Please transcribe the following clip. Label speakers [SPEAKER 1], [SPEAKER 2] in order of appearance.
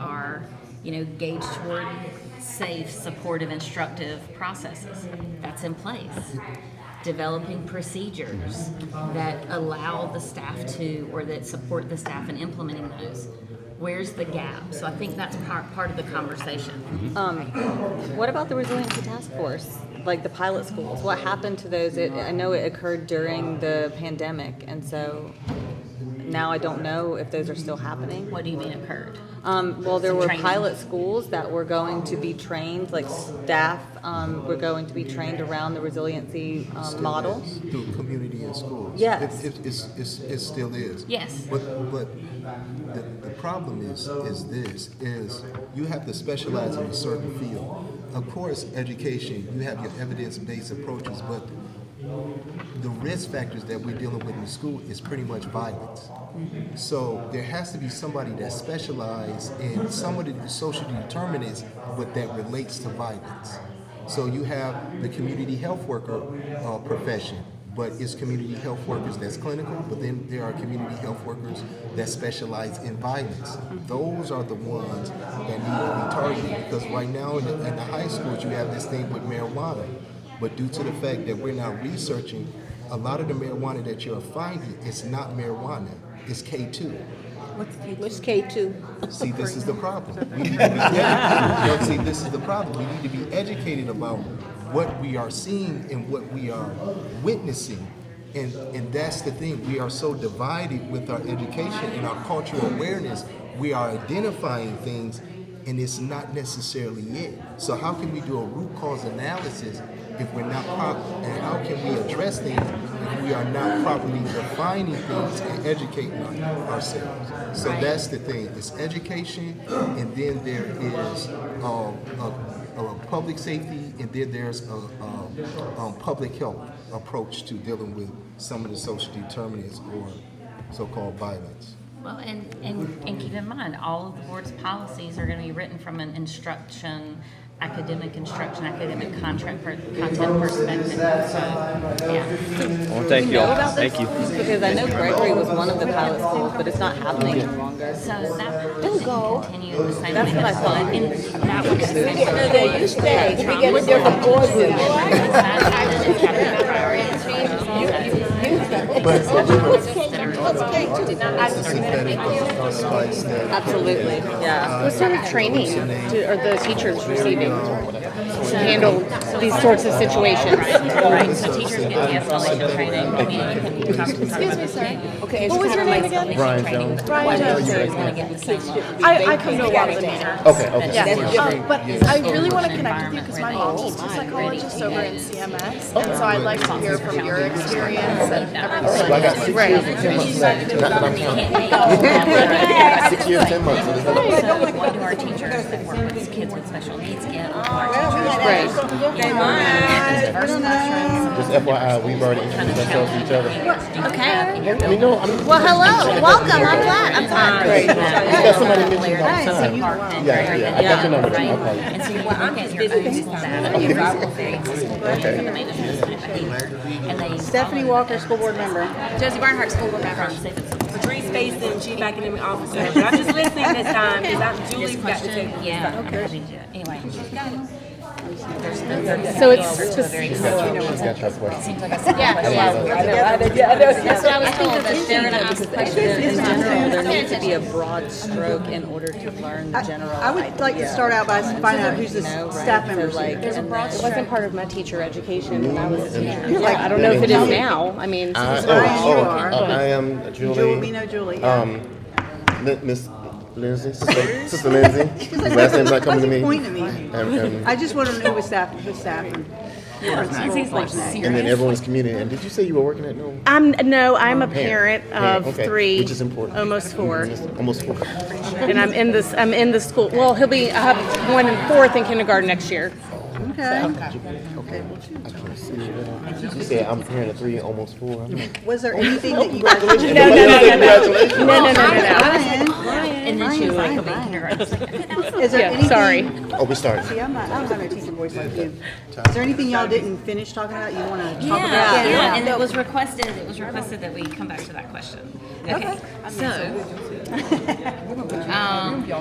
[SPEAKER 1] are, you know, gauged toward safe, supportive, instructive processes. That's in place. Developing procedures that allow the staff to, or that support the staff in implementing those. Where's the gap? So I think that's part, part of the conversation.
[SPEAKER 2] Um, what about the resiliency task force? Like the pilot schools, what happened to those? It, I know it occurred during the pandemic, and so now I don't know if those are still happening.
[SPEAKER 1] What do you mean occurred?
[SPEAKER 2] Um, well, there were
[SPEAKER 1] Training.
[SPEAKER 2] pilot schools that were going to be trained, like staff um, were going to be trained around the resiliency um, model.
[SPEAKER 3] through community and schools.
[SPEAKER 2] Yes.
[SPEAKER 3] It, it, it's, it's, it still is.
[SPEAKER 1] Yes.
[SPEAKER 3] But, but the, the problem is, is this, is you have to specialize in a certain field. Of course, education, you have your evidence-based approaches, but the risk factors that we're dealing with in school is pretty much violence. So there has to be somebody that specializes in some of the social determinants, but that relates to violence. So you have the community health worker uh, profession, but it's community health workers that's clinical, but then there are community health workers that specialize in violence. Those are the ones that need to be targeted because right now in the, in the high schools you have this thing with marijuana. But due to the fact that we're not researching, a lot of the marijuana that you're finding is not marijuana. It's K2.
[SPEAKER 4] What's K two?
[SPEAKER 3] See, this is the problem. We need to be, yeah, you know, see, this is the problem. We need to be educated about what we are seeing and what we are witnessing. And, and that's the thing. We are so divided with our education and our cultural awareness. We are identifying things, and it's not necessarily it. So how can we do a root cause analysis if we're not proper? And how can we address things if we are not properly defining things and educating our- ourselves? So
[SPEAKER 1] Right.
[SPEAKER 3] that's that's the thing. It's education, and then there is um, a, a public safety, and then there's a, um um, public health approach to dealing with some of the social determinants or so-called violence.
[SPEAKER 1] Well, and, and, and keep in mind, all of the board's policies are gonna be written from an instruction, academic instruction, academic contract, per- content perspective, so, yeah.
[SPEAKER 5] Well, thank you
[SPEAKER 2] know
[SPEAKER 5] all.
[SPEAKER 2] about this?
[SPEAKER 5] Thank you.
[SPEAKER 2] Because I know Gregory was one of the pilot schools, but it's not happening any longer.
[SPEAKER 1] So that policy can continue in the same way.
[SPEAKER 2] That's what I thought.
[SPEAKER 1] And that was the same.
[SPEAKER 4] No, they used to be. We get a different board with it.
[SPEAKER 3] It's a synthetic uh, spice that
[SPEAKER 2] Absolutely, yeah.
[SPEAKER 6] What sort of training do, are the teachers receiving to handle these sorts of situations?
[SPEAKER 1] Right, so teachers get the escalation training, community, talk talk about this thing.
[SPEAKER 4] Okay, it's kind of like
[SPEAKER 1] Brian Jones. Brian Jones. gonna get the same level.
[SPEAKER 7] I, I come to a lot of the meetings.
[SPEAKER 5] Okay, okay.
[SPEAKER 7] Um, but I really want to connect with you because my
[SPEAKER 6] Oh,
[SPEAKER 7] mom's a psychologist over in CMS, and so I'd like to hear from your experience and everything.
[SPEAKER 8] I got six years and ten months left. Not that I'm counting. I got six years, ten months. So there's nothing-
[SPEAKER 1] What do our teachers that work with kids with special needs get? Right.
[SPEAKER 8] Just FYI, we've already introduced ourselves to each other.
[SPEAKER 1] Okay.
[SPEAKER 8] I mean, no, I mean,
[SPEAKER 4] Well, hello, welcome, I'm glad, I'm glad.
[SPEAKER 8] you got somebody mentioned all the time. Yeah, yeah, I got your number too. I'll call you.
[SPEAKER 1] And so you're looking at your own school data, your local things, the main administrative behavior, and they.
[SPEAKER 4] Stephanie Walker, school board member.
[SPEAKER 9] Josie Barnhart, school board member.
[SPEAKER 1] From safe and supportive
[SPEAKER 9] Patrice Basin, chief academic officer. But I'm just listening this time because I'm Julie's got the
[SPEAKER 1] question,
[SPEAKER 9] table.
[SPEAKER 1] yeah. Anyway.
[SPEAKER 6] So it's specific.
[SPEAKER 8] She's got your question.
[SPEAKER 1] Seems like a simple question.
[SPEAKER 2] That's what I was told, that Sharon asked questions in general, there needs to be a broad stroke in order to learn the general
[SPEAKER 10] I would like to start out by finding out who's the
[SPEAKER 2] No, right?
[SPEAKER 10] staff
[SPEAKER 2] So,
[SPEAKER 10] members.
[SPEAKER 2] like,
[SPEAKER 10] Like,
[SPEAKER 2] and then-
[SPEAKER 6] It wasn't part of my teacher education when I was,
[SPEAKER 10] You're like-
[SPEAKER 6] yeah, I don't know if it is now. I mean,
[SPEAKER 8] I,
[SPEAKER 6] it's-
[SPEAKER 8] oh,
[SPEAKER 10] you
[SPEAKER 8] oh,
[SPEAKER 10] are.
[SPEAKER 8] okay. Uh, I am
[SPEAKER 10] Julie,
[SPEAKER 8] Julie.
[SPEAKER 10] we know Julie. yeah.
[SPEAKER 8] Um, Li- Miss Lindsay, Sister Sister Lindsay. Your Last name's not coming to
[SPEAKER 10] What's
[SPEAKER 8] me.
[SPEAKER 10] the point of me?
[SPEAKER 8] And- and-
[SPEAKER 10] I just want to know who's staff, who's staff. and-
[SPEAKER 1] He's like serious.
[SPEAKER 8] And then everyone's community. And did you say you were working at no?
[SPEAKER 7] I'm no, I'm a parent
[SPEAKER 8] Parent,
[SPEAKER 7] of
[SPEAKER 8] okay,
[SPEAKER 7] three,
[SPEAKER 8] which is important.
[SPEAKER 7] almost four,
[SPEAKER 8] Almost four.
[SPEAKER 7] and I'm in this. I'm in the school. Well, he'll be. I have one in fourth in kindergarten next year.
[SPEAKER 10] Okay.
[SPEAKER 8] You said I'm parent of three, almost four. I'm like,
[SPEAKER 10] Was there anything that Oh. you guys?
[SPEAKER 7] No, no, no, no, no,
[SPEAKER 8] Congratulations.
[SPEAKER 7] no, no, no,
[SPEAKER 10] Brian,
[SPEAKER 1] And then she was like, "I'll be in kindergarten." It's like,
[SPEAKER 10] is
[SPEAKER 7] no.
[SPEAKER 10] there
[SPEAKER 7] Yeah,
[SPEAKER 10] anything?
[SPEAKER 7] sorry.
[SPEAKER 8] Oh, we started.
[SPEAKER 10] See, I'm not, I don't have a teacher voice like you. Is there anything y'all didn't finish talking about, you want to talk about?
[SPEAKER 1] Yeah, yeah, and it was requested, it was requested that we come back to that question. Okay, so. Um,